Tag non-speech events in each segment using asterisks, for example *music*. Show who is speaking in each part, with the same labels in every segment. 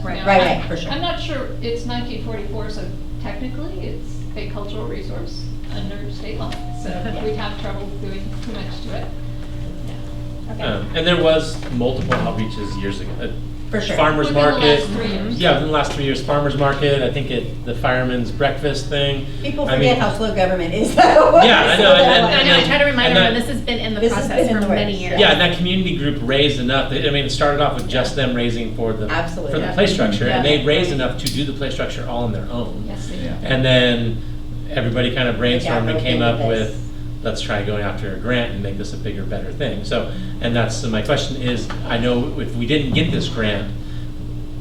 Speaker 1: right.
Speaker 2: Right,
Speaker 1: I-
Speaker 2: right, for sure.
Speaker 1: I'm not sure, it's 1944, so technically it's a cultural resource under state law, so
Speaker 2: Yeah.
Speaker 1: we'd have trouble doing too much to it. Yeah.
Speaker 2: Okay,
Speaker 3: Um, And there was multiple outreaches years ago. Uh,
Speaker 2: for sure.
Speaker 3: Farmers
Speaker 1: Within the last
Speaker 3: market.
Speaker 1: three years.
Speaker 3: Yeah, within the last three years, farmers market, I think it, the fireman's breakfast thing.
Speaker 2: People
Speaker 3: I
Speaker 2: forget
Speaker 3: mean-
Speaker 2: how slow government is *laughs* though.
Speaker 3: Yeah, I know, and-
Speaker 2: *laughs*
Speaker 4: I know, I try to remind
Speaker 3: And that-
Speaker 4: everyone, this has been in the
Speaker 2: This has
Speaker 4: process
Speaker 2: been
Speaker 4: for
Speaker 2: in the
Speaker 4: many
Speaker 2: works,
Speaker 4: years.
Speaker 3: Yeah, and that community group raised enough, I mean, it started off with just them raising for the,
Speaker 2: Absolutely.
Speaker 3: for the play structure, and
Speaker 2: Yeah.
Speaker 3: they raised enough to do the play structure all on their own.
Speaker 1: Yes, they do.
Speaker 5: Yeah.
Speaker 3: And then everybody kind of brainstormed
Speaker 2: Yeah,
Speaker 3: and came
Speaker 2: okay,
Speaker 3: up with,
Speaker 2: this.
Speaker 3: let's try going after a grant and make this a bigger, better thing. So, and that's, so my question is, I know if we didn't get this grant,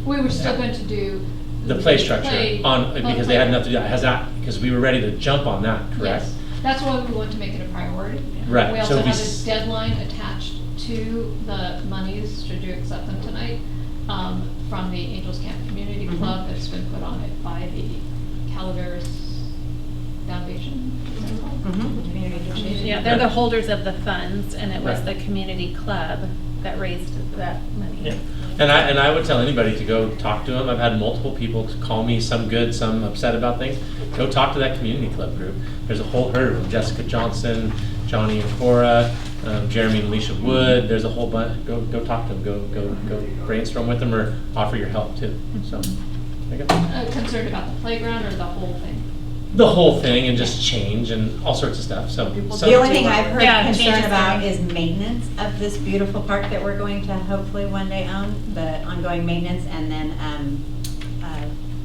Speaker 1: We were still going to do.
Speaker 3: the play structure
Speaker 1: play-
Speaker 3: on, because they had enough to
Speaker 1: play.
Speaker 3: do, has that, because we were ready to jump on that, correct?
Speaker 1: Yes, that's why we want to make it a priority.
Speaker 3: Right,
Speaker 1: We also
Speaker 3: so we
Speaker 1: have
Speaker 3: s-
Speaker 1: a deadline attached to the monies, should you accept them tonight, um, from the Angels Camp Community
Speaker 3: Mm-hmm.
Speaker 2: Mhm.
Speaker 1: Club that's been put on it by the Calaveras Foundation. is that called?
Speaker 2: Mhm.
Speaker 3: Mm-hmm.
Speaker 1: Community.
Speaker 4: Yeah, they're the holders of the funds, and it was the community club that raised that
Speaker 3: Yeah,
Speaker 4: money.
Speaker 3: And I, and I would tell anybody to go talk to them. I've had multiple people call me, some good, some upset about things. Go talk to that community club group. There's a whole herd of them, Jessica Johnson, Johnny and Cora, um, Jeremy and Alicia Wood. There's a whole bunch. Go, go talk to them. Go, go, go brainstorm with them or offer your help too. So, there you go.
Speaker 1: Uh, Concerned about the playground or the whole thing?
Speaker 3: The whole thing and just change and all sorts of stuff, so. so-
Speaker 2: The only thing I've heard
Speaker 4: Yeah,
Speaker 2: concern
Speaker 4: changes
Speaker 2: about
Speaker 4: there.
Speaker 2: is maintenance of this beautiful park that we're going to hopefully one day own, the ongoing maintenance, and then um, uh,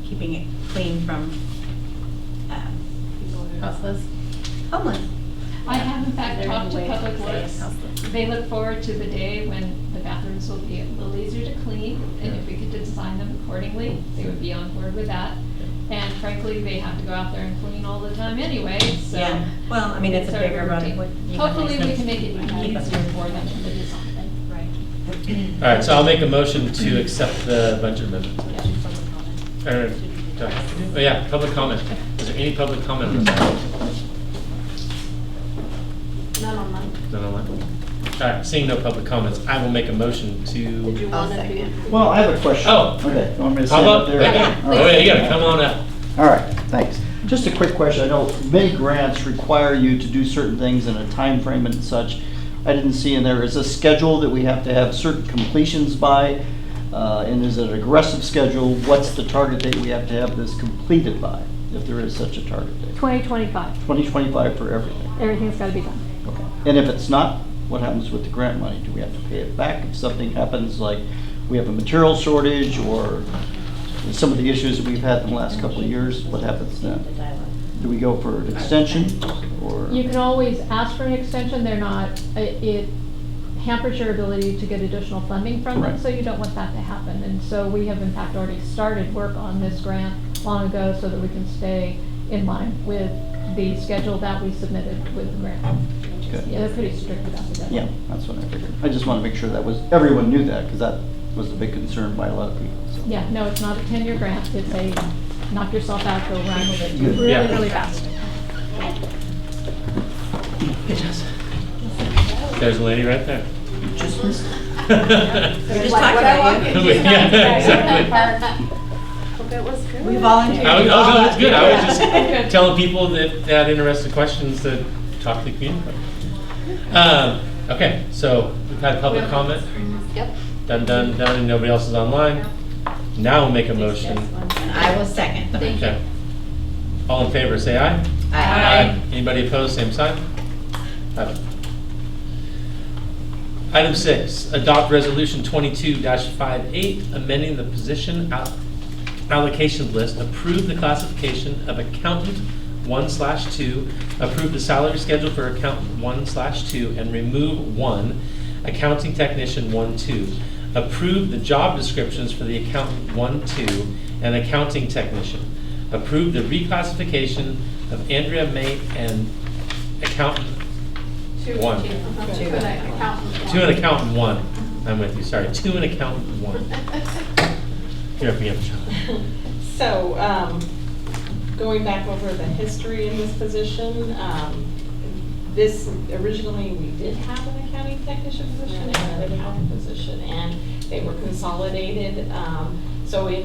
Speaker 2: keeping it clean from um,
Speaker 4: Houseless.
Speaker 2: homeless.
Speaker 1: I have in fact
Speaker 4: They're
Speaker 1: talked to
Speaker 4: way
Speaker 1: Public
Speaker 4: upstairs,
Speaker 1: Works.
Speaker 4: houseless.
Speaker 1: They look forward to the day when the bathrooms will be a little easier to clean, and if we could design them accordingly, they would be on board with that. And frankly, they have to go out there and clean all the time anyway, so.
Speaker 2: Yeah, well, I mean, it's a
Speaker 1: sort of
Speaker 2: bigger road.
Speaker 1: routine.
Speaker 2: What- you can
Speaker 1: Hopefully, we
Speaker 2: make-
Speaker 1: can make it
Speaker 2: Keep
Speaker 1: easier
Speaker 2: up.
Speaker 1: for them to design.
Speaker 3: All right, so I'll make a motion to accept the budget amendment. Or, do I have to do- oh yeah, public comment. Is there any public comment on this?
Speaker 6: Not on mine.
Speaker 3: None online? All right, seeing no public comments, I will make a motion
Speaker 6: Did
Speaker 3: to,
Speaker 6: you
Speaker 2: I'll
Speaker 6: want to
Speaker 2: second.
Speaker 6: do?
Speaker 5: Well, I have a question.
Speaker 3: Oh.
Speaker 5: Okay, you want me to
Speaker 3: how
Speaker 5: stand
Speaker 3: about,
Speaker 5: up there?
Speaker 3: yeah,
Speaker 5: All right.
Speaker 3: oh yeah, you gotta come on up.
Speaker 5: All right, thanks. Just a quick question. I know many grants require you to do certain things in a time frame and such. I didn't see in there, is a schedule that we have to have certain completions by? Uh, And is it an aggressive schedule? What's the target date we have to have this completed by, if there is such a target date?
Speaker 1: Twenty twenty-five,
Speaker 5: 2025 for everything?
Speaker 1: everything's gotta be done.
Speaker 5: Okay. And if it's not, what happens with the grant money? Do we have to pay it back if something happens, like we have a material shortage or some of the issues that we've had in the last couple of years? What happens then? Do we go for an extension or?
Speaker 7: You can always ask for an extension, they're not, it it hampers your ability to get additional funding from them,
Speaker 5: Right.
Speaker 7: so you don't want that to happen. And so we have in fact already started work on this grant long ago so that we can stay in line with the schedule that we submitted with the grant.
Speaker 5: Okay.
Speaker 7: Yeah, they're pretty strict about the
Speaker 5: Yeah,
Speaker 7: deadline.
Speaker 5: that's what I figured. I just want to make sure that was, everyone knew that because that was a big concern by a lot of people, so.
Speaker 7: Yeah, no, it's not a ten-year grant, it's a knock yourself out, go run with it,
Speaker 5: Good.
Speaker 7: really,
Speaker 3: Yeah.
Speaker 7: really fast.
Speaker 3: There's a lady right there.
Speaker 5: Just missed it.
Speaker 2: We just
Speaker 6: Like,
Speaker 2: talked
Speaker 6: what I
Speaker 2: about
Speaker 6: want
Speaker 2: you.
Speaker 6: you to do.
Speaker 3: Yeah, exactly.
Speaker 6: Hope it was good.
Speaker 2: We volunteered.
Speaker 3: I was, oh, no, that's good. I was
Speaker 2: Yeah.
Speaker 3: just *laughs* telling people that they had interesting questions to talk to the community. Um, okay, so we've had public comment.
Speaker 6: Yep.
Speaker 3: Done, done, done, and nobody else is online. Now we'll make a motion.
Speaker 2: And *laughs* I will second.
Speaker 3: Okay. All in favor, say aye. Anybody opposed, same sign? Aye. Item six, adopt resolution twenty-two 58 amending the position al- allocation list, approve the classification of accountant one slash two, approve the salary schedule for accountant one slash two, and remove one, accounting technician one two. Approve the job descriptions for the accountant one two and accounting technician. Approve the reclassification of Andrea Mate and accountant
Speaker 6: Two-
Speaker 3: One.
Speaker 6: two.
Speaker 2: Two.
Speaker 6: Two and an accountant.
Speaker 3: Two
Speaker 6: one.
Speaker 3: and accountant one. I'm with you, sorry. Two and accountant
Speaker 6: *laughs*
Speaker 3: one. Here, if we have
Speaker 8: *laughs* So, um, going back over the history in this position, um, this, originally, we did have an accounting technician position and an accountant position, and they were consolidated. Um, So in